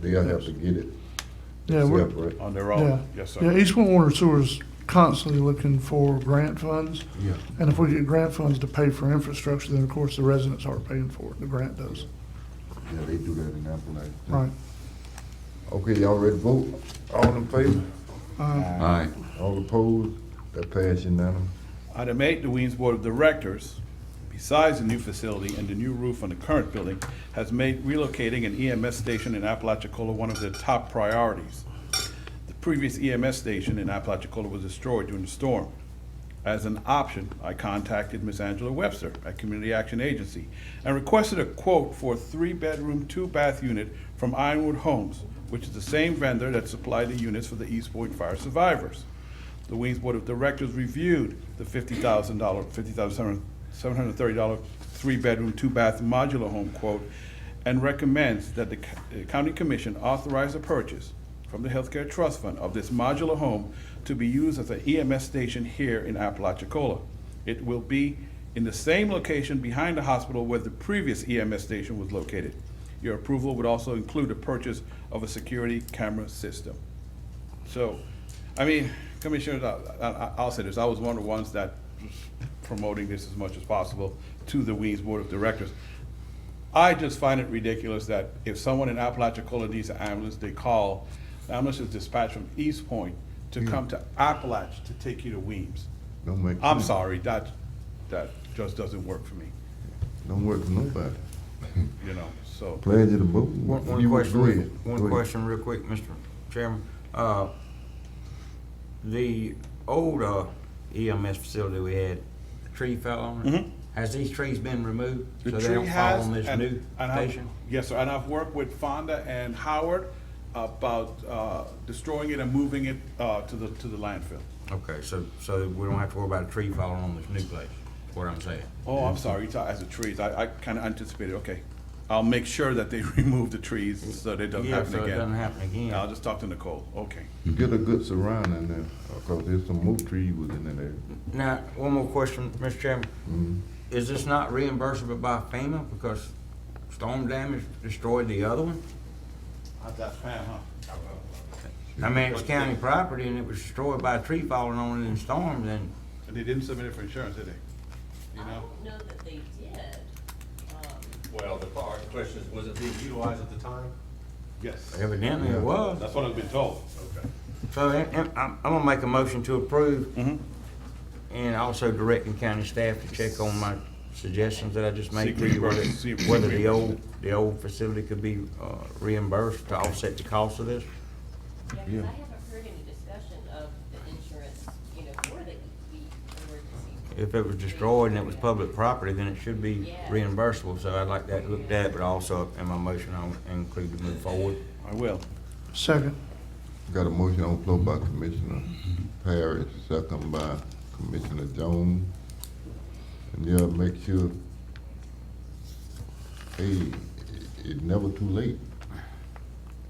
they'll have to get it Yeah, we're, separate. on their yeah. own, yes, Yeah, sir. East Point Water and Sewer is constantly looking for grant funds. Yeah. And if we get grant funds to pay for infrastructure, then of course the residents aren't paying for it, the grant does. Yeah, they do that in Appalachia. Right. Okay, y'all ready to vote? All in favor? Uh, Aye. All opposed? That pass unanimous. Item eight, the Weems Board of Directors, besides the new facility and the new roof on the current building, has made relocating an EMS station in Apalachicola one of their top priorities. The previous EMS station in Apalachicola was destroyed during the storm. As an option, I contacted Ms. Angela Webster at Community Action Agency and requested a quote for a three-bedroom, two-bath unit from Ironwood Homes, which is the same vendor that supplied the units for the East Point fire survivors. The Weems Board of Directors reviewed the fifty thousand dollar, fifty thousand seven hundred thirty dollar three-bedroom, two-bath modular home quote and recommends that the c- uh, county commission authorize the purchase from the Healthcare Trust Fund of this modular home to be used as an EMS station here in Apalachicola. It will be in the same location behind the hospital where the previous EMS station was located. Your approval would also include the purchase of a security camera system. So, I mean, Commissioner, I, I, I'll say this, I was one of the ones that was promoting this as much as possible to the Weems Board of Directors. I just find it ridiculous that if someone in Apalachicola needs an ambulance, they call, the ambulance is dispatched from East Point to come to Appalach to take you to Weems. Don't make. I'm sense. sorry, that, that just doesn't work for me, Don't work for nobody. you know, so. Pledge of the vote. One, one You- question, go real- ahead. Go one ahead. question real quick, Mr. Chairman. Uh, the old uh, EMS facility we had, a tree fell on it. Has these trees been removed? Mm-hmm. The So they tree don't fall has- on this and- new and I've- station? Yes, sir, and I've worked with Fonda and Howard about uh, destroying it and moving it uh, to the, to the landfill. Okay, so, so we don't have to worry about a tree falling on this new place, is what I'm saying. Oh, I'm sorry, it's, uh, as the trees, I, I kind of anticipated, okay. I'll make sure that they remove the trees so that it doesn't Yeah, happen so it doesn't again. happen again. I'll just talk to Nicole, okay. Get a good surrounding there, because there's some oak trees within that area. Now, one more question, Mr. Mm-hmm. Chairman. Is this not reimbursable by FEMA because storm damage destroyed the other one? Uh, That's Pam, huh? I mean, it's county property and it was destroyed by a tree falling on it in storms and And they didn't submit it for insurance, did they? You I know? don't know that they did. Um, Well, the part, the question is, was it being utilized at the time? Yes, evidently it was. that's what I've been told. Okay. So and- and I'm, I'm gonna make a motion to approve. And also directing county staff to check on my suggestions that I just made to you, whether, Seek reimbursement. Seek whether the old, reimbursement. the old facility could be uh, reimbursed to offset the cost of this. Yeah, because I haven't heard any discussion of the insurance, you know, for the, the emergency. If it was destroyed and it was public property, then it should be Yeah. reimbursable, so I'd like that looked at, but also in my motion, I'll include to move forward. I will. Second, Got a motion on the floor by Commissioner Parrish, second by Commissioner Jones. And yeah, make sure, hey, it- it's never too late.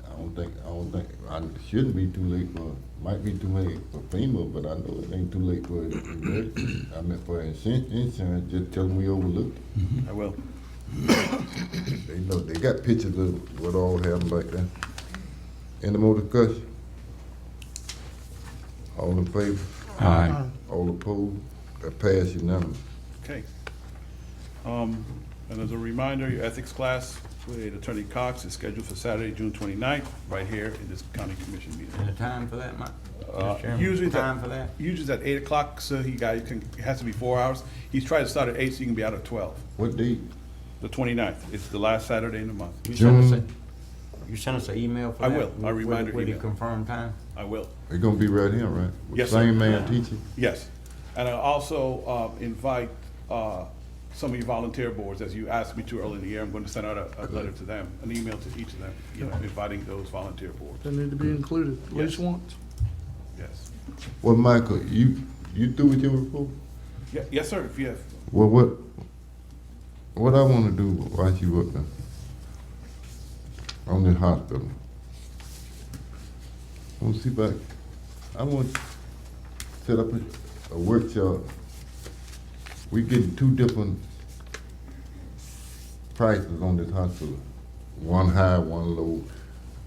I don't think, I don't think, I it shouldn't be too late for, might be too late for FEMA, but I know it ain't too late for, emergency. I mean, for insurance, insurance, just tell them we overlooked. it. I will. They know, they got pictures of what all happened back then. Any more discussion? All in favor? Aye. All opposed? That pass unanimous. Okay. Um, And as a reminder, your ethics class with Attorney Cox is scheduled for Saturday, June 29th, right here in this county commission meeting. And a time for that, Mike? Uh, Mr. Chairman? Usually, it's at- Time for that? Usually it's at 8 o'clock, so he got, it can- it has to be four hours. He's trying to start at 8, so you can be out at 12. What date? The 29th, it's the last Saturday in the month. You sent us June. a, you sent us an email for I that? will. I'll with- remind her With the email. confirmed time? I will. They gonna be right here, right? With Yes, sir. Same man teaching? Yes. And I also um, invite uh, some of your volunteer boards, as you asked me to earlier in the year, I'm going to send out a a letter to them, an email to each of them, you know, inviting those volunteer boards. they need to be included at least once. Yes. Well, Michael, you, you through with your report? Ye- Yes, sir, if you have, Well, what, what I wanna do while you up there? On this hospital. I wanna see if I, I wanna set up a, a workshop. We getting two different prices on this hospital. One high, one low.